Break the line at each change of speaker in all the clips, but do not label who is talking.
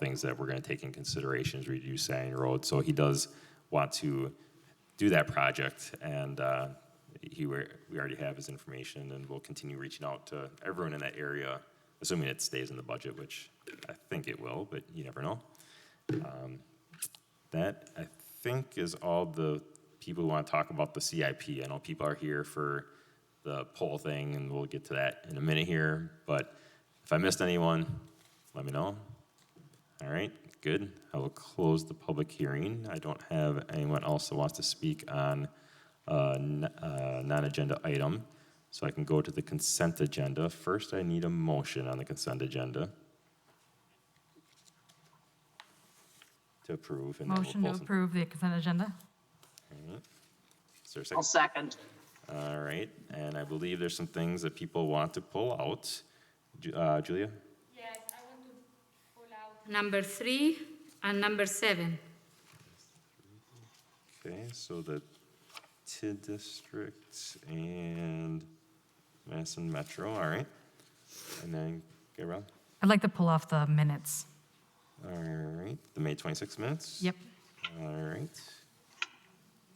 things that we're going to take in consideration as we do Sang Road. So he does want to do that project, and uh, he we we already have his information, and we'll continue reaching out to everyone in that area, assuming it stays in the budget, which I think it will, but you never know. Um, That, I think, is all the people who want to talk about the CIP. I know people are here for the poll thing, and we'll get to that in a minute here. But if I missed anyone, let me know. All right, good. I will close the public hearing. I don't have anyone else that wants to speak on a n- a non-agenda item, so I can go to the consent agenda. First, I need a motion on the consent agenda to approve. and then we'll
Motion to
pull some-
approve the consent agenda?
Is there a
I'll
second?
second.
All right, and I believe there's some things that people want to pull out. Ju- uh, Julia?
Yes, I want to pull out. Number three and number seven.
Okay, so the TID district and Madison Metro, all right. And then Gabrielle,
I'd like to pull off the minutes.
all right, the May 26 minutes?
Yep.
All right.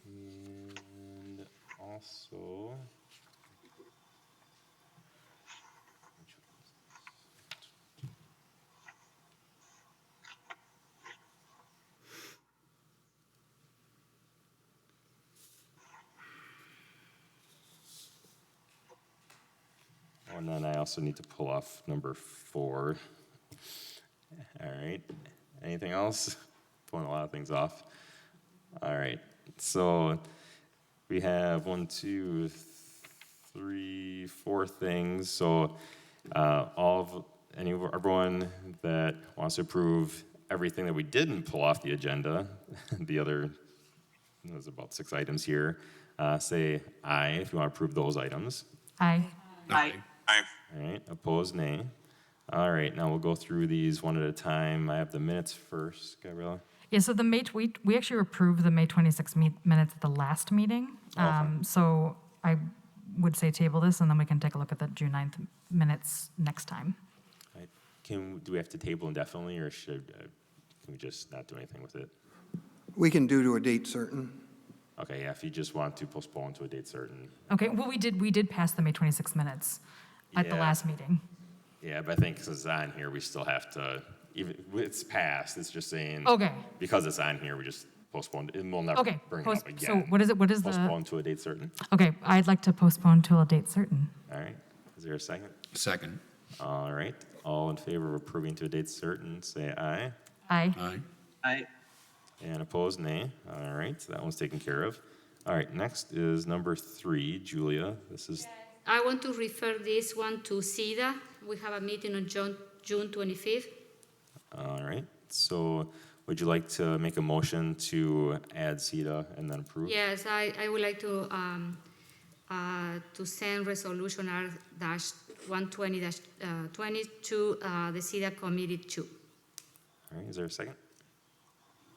And also. oh, Oh, And then I also need to pull off number four. All right. Anything else? Pulling a lot of things off. All right. So we have one, two, th- three, four things. So uh, all of any everyone that wants to approve everything that we didn't pull off the agenda, the other there's about six items here. Uh, say aye if you want to approve those items.
Aye.
Aye.
All right, opposed, nay. All right, now we'll go through these one at a time. I have the minutes first, Gabriella.
Yeah, so the May, tw- we, we actually approved the May 26 me- minutes at the last meeting. Um, So I would say table this, and then we can take a look at the June 9th minutes next time.
I- Can, do we have to table indefinitely, or should, uh, can we just not do anything with it?
We can do to a date certain.
Okay, yeah, if you just want to postpone to a date certain.
Okay, well, we did, we did pass the May 26 minutes at the
Yeah.
last meeting.
Yeah, but I think since it's on here, we still have to, even, it's passed, it's just saying.
Okay.
Because it's on here, we just postpone, it, and we'll never
Okay,
bring it
post-
up
so
again.
what is it- what is the-
Postpone to a date certain.
Okay, I'd like to postpone till a date certain.
All right, is there a second?
Second.
All right, all in favor of approving to a date certain, say aye.
Aye.
Aye.
Aye.
And opposed, nay. All right, so that one's taken care of. All right, next is number three, Julia. This is,
I want to refer this one to SIDA. We have a meeting on June, June 25th.
all right. So would you like to make a motion to add CETA and then approve?
Yes, I, I would like to, um, uh, to send resolution R dash 120 dash, uh, 20 to, uh, the SIDA committee too.
All right, is there a second?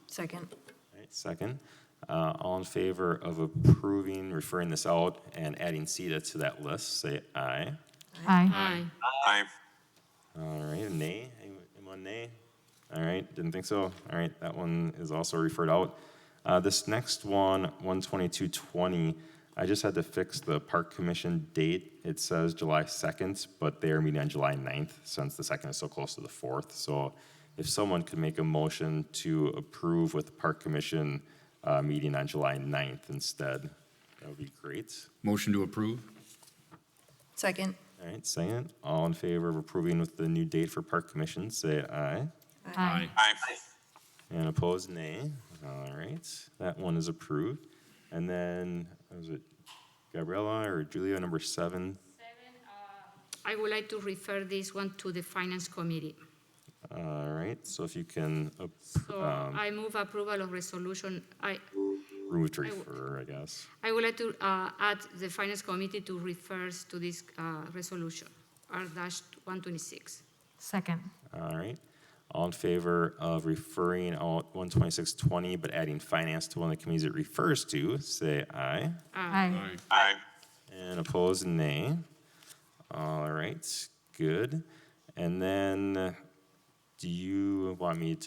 Second.
All right, second. Uh, all in favor of approving, referring this out, and adding CETA to that list, say aye.
Aye.
Aye.
All right, nay? Anyone- Anyone nay? All right, didn't think so. All right, that one is also referred out. Uh, this next one, 12220, I just had to fix the park commission date. It says July 2nd, but they are meeting on July 9th since the 2nd is so close to the 4th. So if someone could make a motion to approve with the park commission uh, meeting on July 9th instead, that would be great.
Motion to approve?
Second.
All right, second, all in favor of approving with the new date for park commission, say aye.
Aye.
And opposed, nay. All right, that one is approved. And then, was it Gabriella or Julia, number seven?
I would like to refer this one to the finance committee.
All right, so if you can
So I move approval of resolution, I,
approve to refer, I guess.
I would like to uh, add the Finance Committee to refers to this uh, resolution, R-126.
Second.
All right, all in favor of referring out one twenty-six twenty, but adding finance to one of the committees it refers to, say aye.
Aye.
And opposed, nay. All right, good. And then Do you want me to